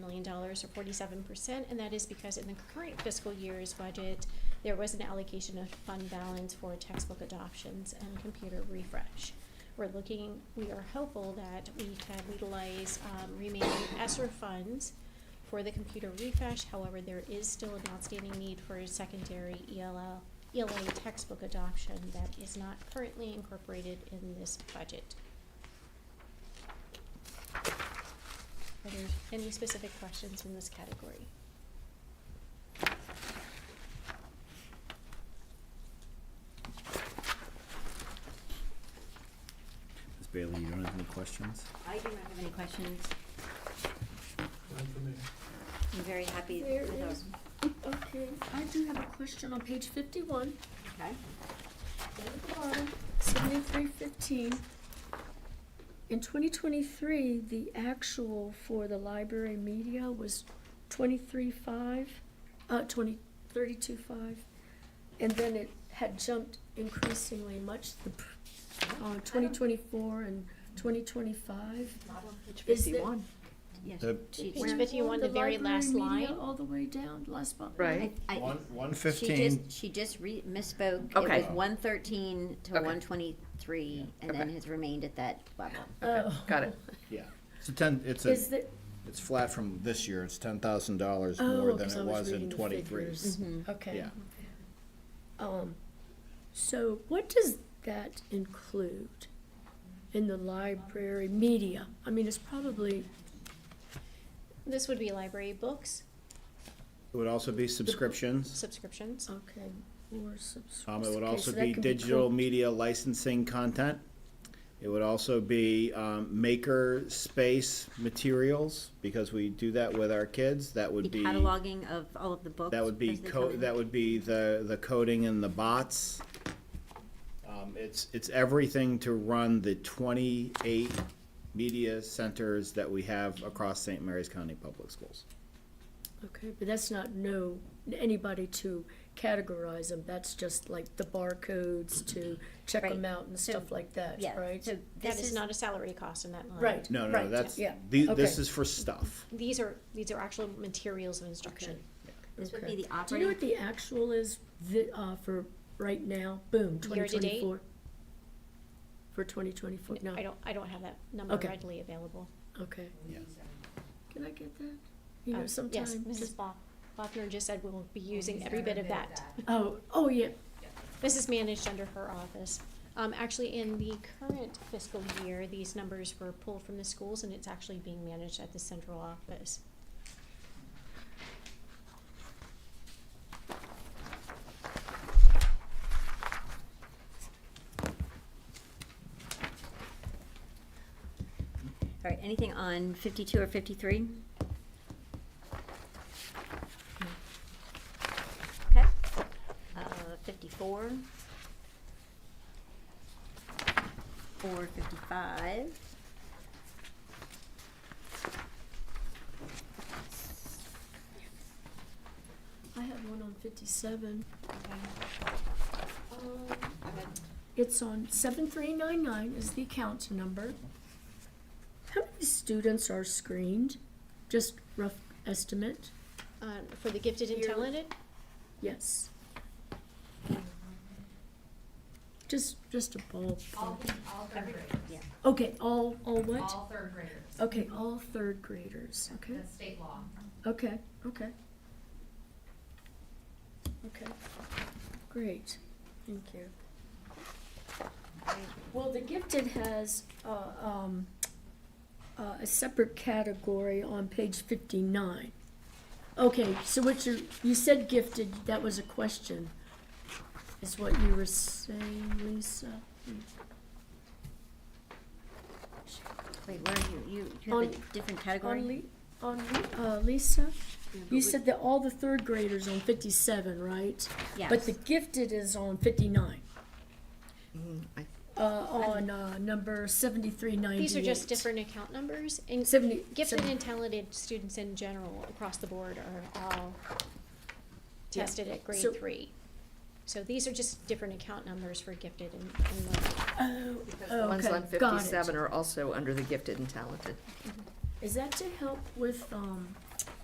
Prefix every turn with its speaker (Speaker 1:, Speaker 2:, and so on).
Speaker 1: dollars or forty-seven percent, and that is because in the current fiscal year's budget, there was an allocation of fund balance for textbook adoptions and computer refresh. We're looking, we are hopeful that we can utilize, um, remaining ESSER funds for the computer refresh, however, there is still an outstanding need for a secondary E ELL, ELA textbook adoption that is not currently incorporated in this budget. Are there any specific questions in this category?
Speaker 2: Ms. Bailey, you don't have any questions?
Speaker 3: I do not have any questions.
Speaker 4: None for me.
Speaker 3: I'm very happy
Speaker 5: There
Speaker 3: with our,
Speaker 5: is, okay, I do have a question on page fifty-one,
Speaker 3: okay?
Speaker 5: down at the bottom, seventy-three fifteen. In twenty twenty-three, the actual for the library media was twenty-three five, uh, twenty, thirty-two five. And then it had jumped increasingly much, the, pr- uh, twenty twenty-four and twenty twenty-five.
Speaker 3: Page
Speaker 5: Is there- 51.
Speaker 3: Yes.
Speaker 2: Uh,
Speaker 3: she-
Speaker 1: Page fifty-one, the very last
Speaker 5: library
Speaker 1: line.
Speaker 5: media all the way down, last bu-
Speaker 6: Right.
Speaker 3: I- I-
Speaker 4: One, one
Speaker 3: She
Speaker 2: fifteen,
Speaker 3: just, she just re- misspoke.
Speaker 6: Okay.
Speaker 3: It was one thirteen to
Speaker 6: Okay.
Speaker 3: one twenty-three, and then
Speaker 6: Okay.
Speaker 3: has remained at that level.
Speaker 6: Okay, Got it.
Speaker 2: yeah. It's a ten, it's a,
Speaker 5: Is the,
Speaker 2: it's flat from this year, it's ten thousand dollars more
Speaker 5: oh,
Speaker 2: than
Speaker 5: because I
Speaker 2: it
Speaker 5: was
Speaker 2: was in
Speaker 5: reading the
Speaker 2: twenty-three.
Speaker 5: figures.
Speaker 1: Mm-hmm.
Speaker 5: Okay.
Speaker 2: Yeah,
Speaker 5: Um, so what does that include in the library media? I mean, it's probably,
Speaker 1: This would be library books,
Speaker 2: it would also be subscriptions,
Speaker 1: subscriptions.
Speaker 5: okay, or subs-
Speaker 2: um, it would
Speaker 5: okay,
Speaker 2: also
Speaker 5: so that
Speaker 2: be
Speaker 5: could be
Speaker 2: digital
Speaker 5: called-
Speaker 2: media licensing content. It would also be, um, maker space materials, because we do that with our kids, that
Speaker 3: The
Speaker 2: would be.
Speaker 3: cataloging of all of the books.
Speaker 2: That would be
Speaker 3: as they
Speaker 2: co-
Speaker 3: come in.
Speaker 2: that would be the, the coding and the bots. Um, it's, it's everything to run the twenty-eight media centers that we have across St. Mary's County Public Schools.
Speaker 5: Okay, but that's not no, anybody to categorize them, that's just like the barcodes to check
Speaker 3: Right.
Speaker 5: them out and
Speaker 3: So-
Speaker 5: stuff like that,
Speaker 3: Yeah,
Speaker 5: right?
Speaker 3: so
Speaker 1: That
Speaker 3: this
Speaker 1: is
Speaker 3: is,
Speaker 1: not a salary cost in that line.
Speaker 5: Right.
Speaker 2: No, no, no,
Speaker 5: Right,
Speaker 2: that's,
Speaker 5: yeah,
Speaker 2: the, this
Speaker 5: okay.
Speaker 2: is for stuff.
Speaker 1: These are, these are actual materials of instruction.
Speaker 3: this would
Speaker 5: Okay.
Speaker 3: be the
Speaker 5: Do you know
Speaker 3: operating,
Speaker 5: what the actual is, the, uh, for right now, boom, twenty
Speaker 1: Year to date?
Speaker 5: twenty-four? For twenty twenty-four, no,
Speaker 1: I don't, I don't have that number
Speaker 5: Okay.
Speaker 1: readily available.
Speaker 5: okay.
Speaker 2: Yeah.
Speaker 5: Can I get that? You
Speaker 1: Um,
Speaker 5: know, sometimes.
Speaker 1: Yes, Mrs. Bo- Bofner just said we'll be using every bit of that.
Speaker 5: Oh, oh, yeah,
Speaker 1: This is managed under her office. Um, actually, in the current fiscal year, these numbers were pulled from the schools and it's actually being managed at the central office.
Speaker 3: all right, anything on fifty-two or fifty-three? Okay, uh, fifty-four. Or fifty-five.
Speaker 5: I have one on fifty-seven.
Speaker 3: Okay.
Speaker 5: It's on seven three nine nine is the account number. How many students are screened? Just rough estimate,
Speaker 1: Um, for the gifted and
Speaker 5: Yearly.
Speaker 1: talented,
Speaker 5: yes. Just, just a bulb.
Speaker 7: All, all third graders.
Speaker 5: Okay, all, all what?
Speaker 7: All third graders.
Speaker 5: Okay, all third graders, okay,
Speaker 7: That's state law.
Speaker 5: okay, okay. Okay, great, thank you. Well, the gifted has, uh, um, uh, a separate category on page fifty-nine. Okay, so what you, you said gifted, that was a question, is what you were saying, Lisa?
Speaker 3: Wait, where are you? You, you have a
Speaker 5: On-
Speaker 3: different category?
Speaker 5: On Li- on, Li- uh, Lisa?
Speaker 3: Yeah, but
Speaker 5: You
Speaker 3: we-
Speaker 5: said that all the third graders on fifty-seven, right? But
Speaker 3: Yes.
Speaker 5: the gifted is on fifty-nine.
Speaker 6: I-
Speaker 5: Uh, on, uh, number seventy-three ninety-eight.
Speaker 1: these are just different account numbers and
Speaker 5: Seventy.
Speaker 1: gifted
Speaker 5: seven-
Speaker 1: and talented students in general across the board are all
Speaker 5: Yeah.
Speaker 1: tested at grade
Speaker 5: So-
Speaker 1: three. So these are just different account numbers for gifted and, and learning.
Speaker 5: Oh,
Speaker 6: Ones on
Speaker 5: okay, got it.
Speaker 6: fifty-seven are also under the gifted and talented.
Speaker 5: Is that to help with, um,